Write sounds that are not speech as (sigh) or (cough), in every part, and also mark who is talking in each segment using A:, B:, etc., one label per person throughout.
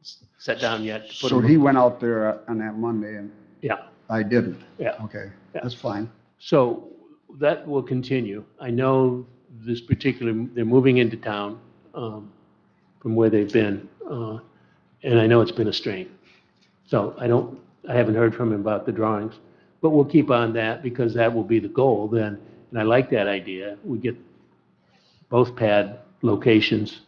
A: s- set down yet. to put
B: So
A: them-
B: he went out there uh, on that Monday and
A: Yeah,
B: I didn't.
A: yeah.
B: Okay,
A: Yeah.
B: that's fine.
A: So that will continue. I know this particular, they're moving into town um, from where they've been, uh, and I know it's been a strain. So I don't, I haven't heard from him about the drawings, but we'll keep on that because that will be the goal then. And I like that idea. We get both pad locations,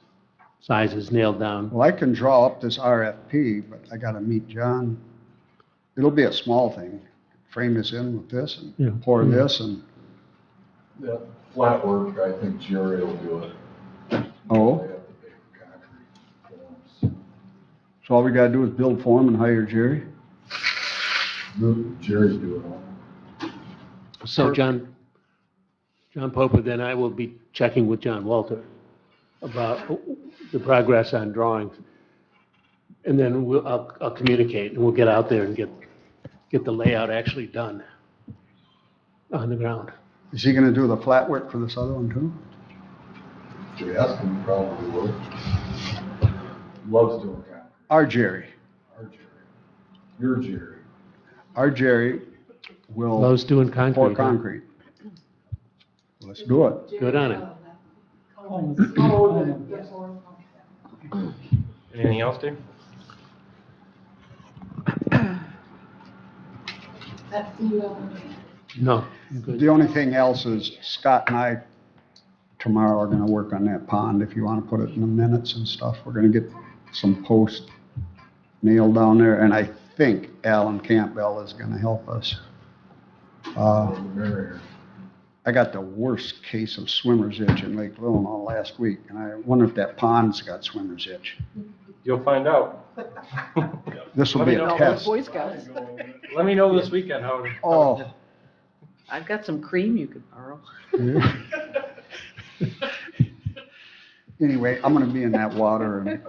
A: sizes nailed down.
B: Well, I can draw up this RFP, but I gotta meet John. It'll be a small thing. Frame this in with this
A: Yeah.
B: and pour this and,
C: Yeah, flat work, I think Jerry will do it.
B: oh,
C: They have to pay for concrete forms.
B: so all we gotta do is build form and hire Jerry?
C: No, Jerry do it all.
A: So John, John Pope, then I will be checking with John Walter about the progress on drawings. And then we'll, I'll, I'll communicate and we'll get out there and get, get the layout actually done on the ground.
B: Is he gonna do the flat work for this other one too?
C: If you ask him, probably will. Loves doing concrete,
B: Our Jerry,
C: our Jerry. Your Jerry.
B: our Jerry will
A: Lowe's doing
B: pour
A: concrete. huh?
B: concrete. Let's do it.
A: Good on it.
D: Anything else, Dave?
E: That's the uh,
A: No, good.
B: The only thing else is Scott and I tomorrow are gonna work on that pond, if you wanna put it in the minutes and stuff. We're gonna get some posts nailed down there, and I think Alan Campbell is gonna help us. Uh,
C: the mayor.
B: I got the worst case of swimmer's itch in Lake Illinois last week, and I wonder if that pond's got swimmer's itch.
D: You'll find out.
B: This will be a
D: (laughs) Let me know.
B: test.
F: Boy Scouts.
D: Let me know this weekend how it.
B: Oh.
F: I've got some cream you could borrow.
B: Anyway, I'm gonna be in that water and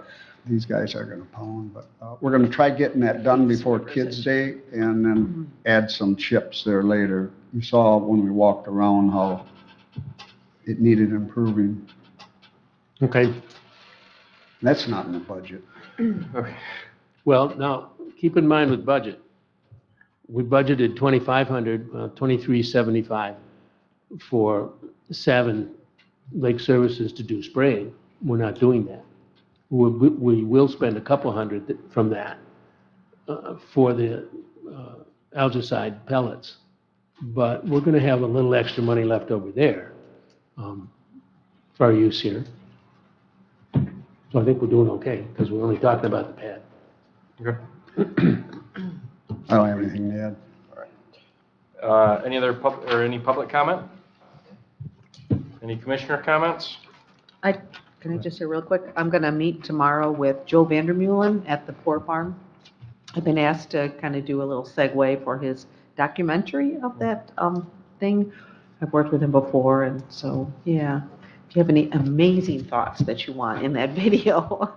B: these guys are gonna pound, but, uh, we're gonna try getting that done before Kids Day and then add some chips there later. You saw when we walked around how it needed improving.
A: Okay,
B: That's not in the budget.
A: well, now, keep in mind with budget. We budgeted 2,500, uh, 2,375 for Savin Lake Services to do spraying. We're not doing that. We, we- we will spend a couple hundred th- from that uh, for the uh, algicide pellets. But we're going to have a little extra money left over there um, for our use here. So I think we're doing okay because we're only talking about the pad.
D: Okay.
B: I don't have anything to add.
D: Uh, Any other pub, or any public comment? Any commissioner comments?
F: I, can I just say real quick, I'm gonna meet tomorrow with Joe Vandermeulen at the Poor Farm. I've been asked to kind of do a little segue for his documentary of that, um, thing. I've worked with him before, and so, yeah. If you have any amazing thoughts that you want in that (laughs) video,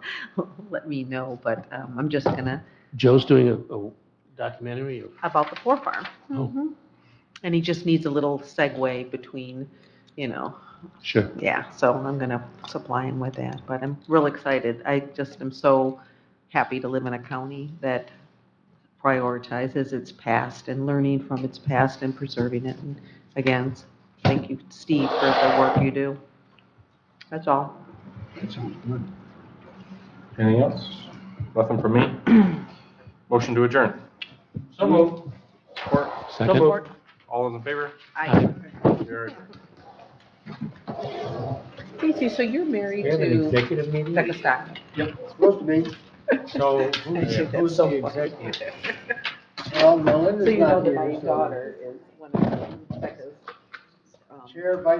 F: let me know, but, um, I'm just gonna,
A: Joe's doing a, a documentary or
F: about the Poor Farm.
A: Oh.
F: Mhm. And he just needs a little segue between, you know,
A: Sure.
F: Yeah, so I'm going to supply him with that, but I'm real excited. I just am so happy to live in a county that prioritizes its past and learning from its past and preserving it. And Again, thank you, Steve, for the work you do. That's all.
B: That sounds good.
D: Anything else? Nothing from me? (clears throat) Motion to adjourn.
C: So moved.
D: Support.
A: Second.
D: All those in favor?
F: I,
D: We are-
F: Casey, so you're married to
D: executive meeting?
F: Becca Stockman?
B: Supposed to be.
D: So
F: (laughs) I
D: who's,
F: think
D: who's
F: that's
D: the
F: so funny.
D: executive?
B: Well,
F: So
B: Melinda's
F: you know that my daughter is one of Becca's. um,
B: Chair,